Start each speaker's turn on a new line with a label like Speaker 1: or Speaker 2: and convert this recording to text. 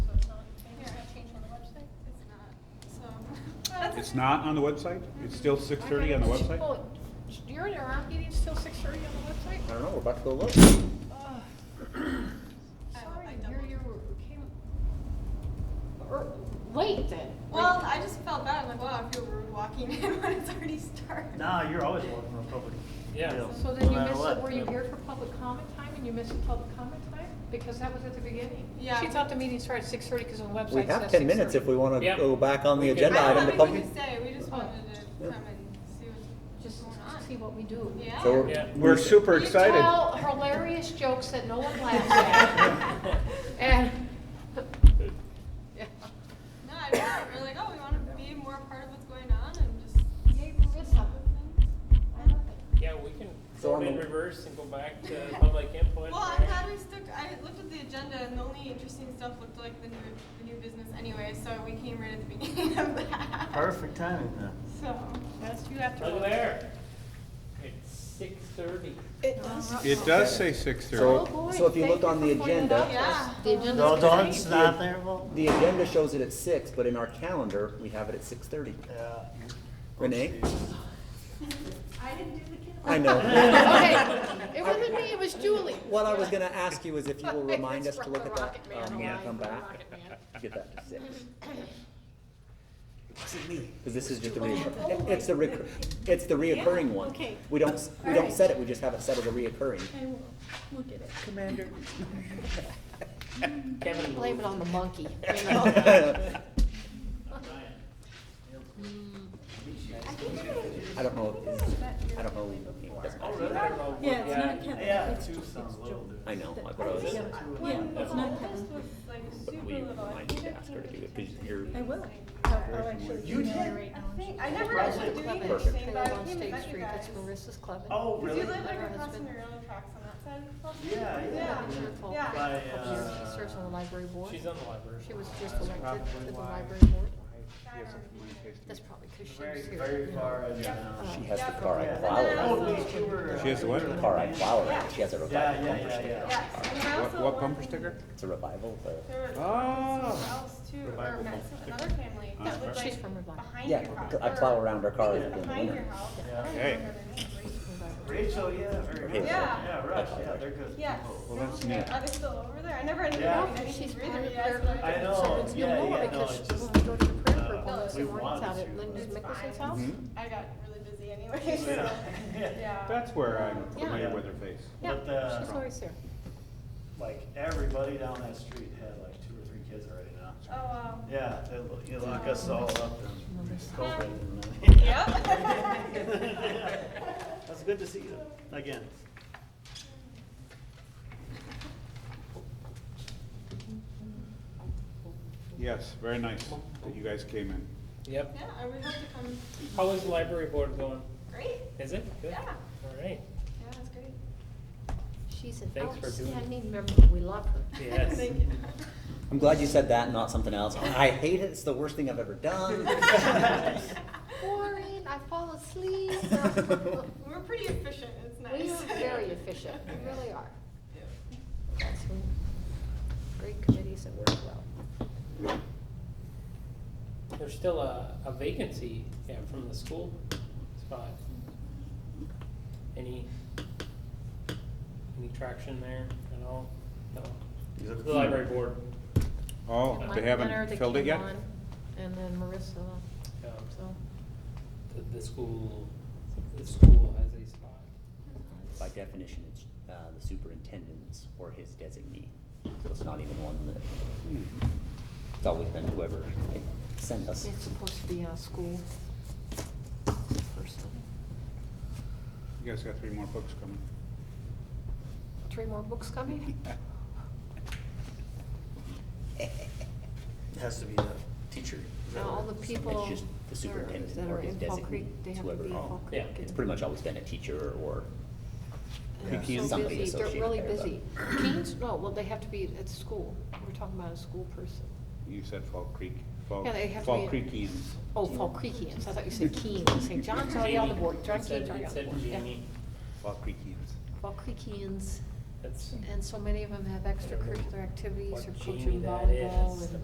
Speaker 1: It's not on the website? It's still six thirty on the website?
Speaker 2: Well, You're in our meeting's till six thirty on
Speaker 1: I
Speaker 2: the website?
Speaker 1: don't know, we're about to go look.
Speaker 2: Ugh.
Speaker 3: I-
Speaker 2: Sorry,
Speaker 3: I
Speaker 2: here
Speaker 3: doubled.
Speaker 2: you came, or, late then.
Speaker 3: Well, I just felt bad. I'm like, wow, I feel rude walking in when it's already started.
Speaker 4: Nah, you're always welcome to public.
Speaker 5: Yeah.
Speaker 4: deals,
Speaker 2: So then
Speaker 4: no
Speaker 2: you
Speaker 4: matter
Speaker 2: missed,
Speaker 4: what.
Speaker 2: it. were you here for public comment time and you missed the public comment time? Because that was at the beginning.
Speaker 3: Yeah.
Speaker 2: She thought the meeting started at six thirty because the website says
Speaker 6: We have ten minutes if we
Speaker 2: 6:30.
Speaker 6: wanna
Speaker 5: Yeah.
Speaker 6: go back on the
Speaker 5: We could-
Speaker 6: agenda
Speaker 3: I
Speaker 6: item
Speaker 3: don't
Speaker 6: to
Speaker 3: think we
Speaker 6: public.
Speaker 3: could say. We just wanted to
Speaker 6: Yeah.
Speaker 3: come and see what's
Speaker 2: Oh. Just
Speaker 3: going on.
Speaker 2: see what we do.
Speaker 3: Yeah.
Speaker 6: So
Speaker 5: Yeah.
Speaker 6: we're.
Speaker 1: We're super
Speaker 3: You
Speaker 1: excited.
Speaker 2: You tell hilarious jokes that no one laughs at. And, yeah,
Speaker 3: No, I just we're like, oh, we want to be more a part of what's going on and just.
Speaker 2: Yay, we're with something. I love it.
Speaker 5: Yeah, we can
Speaker 6: So
Speaker 5: go
Speaker 6: on
Speaker 5: in
Speaker 6: the-
Speaker 5: reverse and go back to public input.
Speaker 3: Well, I'm
Speaker 5: right?
Speaker 3: glad we stuck. I looked at the agenda, and the only interesting stuff looked like the new, the new business anyway. So we came right at the beginning of that.
Speaker 4: Perfect timing then.
Speaker 3: So
Speaker 2: That's you after.
Speaker 5: Look there. It's six thirty.
Speaker 2: It does.
Speaker 1: It does say six
Speaker 6: So-
Speaker 1: thirty.
Speaker 6: so if you look on the agenda-
Speaker 3: Yeah.
Speaker 2: The agenda's
Speaker 4: No,
Speaker 2: great.
Speaker 4: Dawn's not there, well,
Speaker 6: The agenda shows it at six, but in our calendar, we have it at six thirty.
Speaker 4: yeah.
Speaker 6: Renee?
Speaker 7: I didn't do the kindergarten.
Speaker 6: I know.
Speaker 2: Okay, it wasn't me, it was Julie.
Speaker 6: What I was gonna ask you is if you will remind us
Speaker 2: It's
Speaker 6: to look at that,
Speaker 2: Rocket Man,
Speaker 6: um, when
Speaker 2: Rocket
Speaker 6: we come back,
Speaker 2: Rocket Man.
Speaker 6: get that to six. It wasn't me, Cause this is just a reoccurring, it's the recur, it's the reoccurring one.
Speaker 7: okay.
Speaker 6: We don't, s- we
Speaker 7: All
Speaker 6: don't
Speaker 7: right.
Speaker 6: set it, we just have it set as a reoccurring.
Speaker 7: I will look at it.
Speaker 6: Commander.
Speaker 5: Kevin.
Speaker 2: Blame it on the monkey, you know?
Speaker 6: I
Speaker 7: I think I did.
Speaker 6: don't know, is- I don't know, it doesn't
Speaker 5: Oh,
Speaker 6: matter.
Speaker 5: really? I don't know.
Speaker 7: Yeah, it's not
Speaker 5: Yeah.
Speaker 7: Kevin.
Speaker 4: Yeah,
Speaker 7: It's-
Speaker 4: two
Speaker 7: it's
Speaker 4: sounds a
Speaker 7: Joe.
Speaker 4: little different.
Speaker 6: I know, I thought it was,
Speaker 7: Yeah, yeah, it's not
Speaker 3: This
Speaker 7: Kevin.
Speaker 3: was like
Speaker 6: but
Speaker 3: super
Speaker 6: we
Speaker 3: little. I
Speaker 6: might
Speaker 3: think I
Speaker 6: ask her to do it, because you're,
Speaker 7: I will.
Speaker 2: Oh,
Speaker 7: I'll I'll actually.
Speaker 4: You
Speaker 7: email
Speaker 4: did?
Speaker 7: her right
Speaker 3: I
Speaker 7: now.
Speaker 3: think I never actually do anything, but I
Speaker 2: Trailer on
Speaker 3: came and
Speaker 2: State
Speaker 3: met you
Speaker 2: Street,
Speaker 3: guys.
Speaker 2: that's Marissa's club.
Speaker 4: Oh,
Speaker 3: Did you
Speaker 4: really?
Speaker 3: live like
Speaker 2: Her
Speaker 3: across from
Speaker 2: husband.
Speaker 3: the railroad tracks on that side of Flushing?
Speaker 4: Yeah, yeah.
Speaker 2: It's her fault.
Speaker 3: Yeah.
Speaker 4: By,
Speaker 2: She
Speaker 4: uh,
Speaker 2: serves on the library board.
Speaker 5: She's on the library.
Speaker 2: She was
Speaker 5: board.
Speaker 2: just
Speaker 5: That's
Speaker 2: elected
Speaker 5: probably
Speaker 2: to the
Speaker 5: why.
Speaker 2: library board. That's probably because she
Speaker 4: Very,
Speaker 2: was here.
Speaker 4: very far and, uh.
Speaker 6: she has the
Speaker 3: Yeah.
Speaker 6: car I
Speaker 4: yeah.
Speaker 6: plow
Speaker 4: Oh,
Speaker 6: around.
Speaker 4: at least you were, uh,
Speaker 1: She has the what?
Speaker 4: you were
Speaker 6: Car I
Speaker 4: the-
Speaker 6: plow around, she has a
Speaker 4: Yeah,
Speaker 6: revival
Speaker 4: yeah,
Speaker 6: bumper
Speaker 4: yeah,
Speaker 6: sticker.
Speaker 4: yeah.
Speaker 3: Yes. And I
Speaker 1: What,
Speaker 3: also
Speaker 1: what bumper
Speaker 3: wanted-
Speaker 1: sticker?
Speaker 6: It's a revival, but,
Speaker 3: There was
Speaker 1: Oh.
Speaker 3: someone else too, or
Speaker 4: Revival
Speaker 3: met
Speaker 4: Month.
Speaker 3: another family
Speaker 1: That's
Speaker 3: that lived
Speaker 2: right. She's
Speaker 3: like
Speaker 2: from Revival.
Speaker 3: behind your
Speaker 6: yeah,
Speaker 3: house.
Speaker 6: I
Speaker 3: or-
Speaker 6: plow around her car during the
Speaker 3: Behind your
Speaker 6: winter.
Speaker 3: house. I
Speaker 4: Yeah.
Speaker 3: don't
Speaker 1: Hey.
Speaker 3: remember their names.
Speaker 4: Rachel, yeah, very good.
Speaker 6: Rachel.
Speaker 3: Yeah.
Speaker 4: Yeah, Rush, yeah, they're good.
Speaker 3: Yes.
Speaker 4: people.
Speaker 1: Well, that's
Speaker 3: Okay.
Speaker 1: neat.
Speaker 3: Are they still over there? I never ended
Speaker 4: Yeah.
Speaker 3: up doing anything
Speaker 2: She's
Speaker 3: for either
Speaker 2: part
Speaker 3: of
Speaker 2: of
Speaker 3: you guys.
Speaker 2: the-
Speaker 3: but-
Speaker 4: I know.
Speaker 2: So it's
Speaker 4: yeah,
Speaker 2: no more
Speaker 4: yeah, no,
Speaker 2: because
Speaker 4: it's
Speaker 2: when
Speaker 4: just,
Speaker 2: we go to the prayer
Speaker 4: uh,
Speaker 2: group, all
Speaker 3: we
Speaker 2: the morning's
Speaker 4: wanted
Speaker 2: out at
Speaker 4: to,
Speaker 2: Linda
Speaker 3: but-
Speaker 2: Mickelson's house.
Speaker 3: I got really busy anyway, so,
Speaker 4: Yeah.
Speaker 3: yeah.
Speaker 1: That's where I'm familiar
Speaker 4: Yeah.
Speaker 1: with her face.
Speaker 2: Yeah,
Speaker 4: But, uh,
Speaker 2: she's always there.
Speaker 4: Like, everybody down that street had like two or three kids already now.
Speaker 3: Oh, wow.
Speaker 4: Yeah, they lo- you lock us all up and COVID and.
Speaker 3: Yep.
Speaker 4: uh, That's good to see you again.
Speaker 1: Yes, very nice that you guys came in.
Speaker 5: Yep.
Speaker 3: Yeah, I would have to come.
Speaker 5: How is the library board going?
Speaker 3: Great.
Speaker 5: Is it? Good?
Speaker 3: Yeah.
Speaker 5: All right.
Speaker 3: Yeah, that's great.
Speaker 2: She's an
Speaker 5: Thanks for doing it.
Speaker 2: outstanding member. We love her.
Speaker 5: Yes.
Speaker 3: Thank you.
Speaker 6: I'm glad you said that, and not something else. I hate it, it's the worst thing I've ever done.
Speaker 2: Boring, I fall asleep.
Speaker 3: We're pretty efficient, it's nice.
Speaker 2: We are very efficient, we really are.
Speaker 3: Yeah.
Speaker 2: Got some great committees that work well.
Speaker 5: There's still a, a vacancy, yeah, from the school spot. Any, any traction there at all? No.
Speaker 4: He's looking
Speaker 5: The
Speaker 4: for-
Speaker 5: library board.
Speaker 1: Oh,
Speaker 2: Mike
Speaker 1: they
Speaker 2: Leonard that
Speaker 1: haven't filled it
Speaker 2: came
Speaker 1: yet?
Speaker 2: on, And then Marissa,
Speaker 5: um,
Speaker 2: so.
Speaker 5: The, the school, the school has a spot.
Speaker 6: By definition, it's uh, the superintendent's or his designee, so it's not even one that,
Speaker 1: Hmm.
Speaker 6: it's always been whoever they send us.
Speaker 2: It's supposed to be a school person.
Speaker 1: You guys got three more books coming.
Speaker 2: Three more books coming?
Speaker 4: It Has to be the teacher. Is that
Speaker 2: Now, all
Speaker 4: what-
Speaker 2: the people
Speaker 6: just the
Speaker 2: that are-
Speaker 6: superintendent
Speaker 2: that
Speaker 6: or
Speaker 2: are
Speaker 6: his
Speaker 2: in Fall
Speaker 6: designee,
Speaker 2: Creek, they have to
Speaker 6: whoever-
Speaker 2: be in
Speaker 4: Oh,
Speaker 2: Fall Creek.
Speaker 5: yeah,
Speaker 6: It's pretty much always been a teacher or
Speaker 2: They're
Speaker 4: Yeah.
Speaker 2: so
Speaker 6: something
Speaker 2: busy. They're
Speaker 6: associated
Speaker 2: really
Speaker 6: there,
Speaker 2: busy.
Speaker 6: but-
Speaker 2: Keens, no, well, they have to be at school. We're talking about a school person.
Speaker 1: You said Fall Creek, Fall,
Speaker 2: Yeah, they have to
Speaker 1: Fall
Speaker 2: be-
Speaker 1: Creekians.
Speaker 2: Oh, Fall Creekians, I thought you said Keens, St. John's already on the board, John
Speaker 5: It said-
Speaker 2: Keens already
Speaker 5: it
Speaker 2: on the
Speaker 5: said
Speaker 2: board, yeah.
Speaker 5: Jamie.
Speaker 1: Fall Creekians.
Speaker 2: Fall Creekians,
Speaker 5: That's.
Speaker 2: and so many of them have extracurricular activities
Speaker 5: What
Speaker 2: or
Speaker 5: Jamie
Speaker 2: coaching
Speaker 5: that
Speaker 2: volleyball
Speaker 5: is.
Speaker 2: and.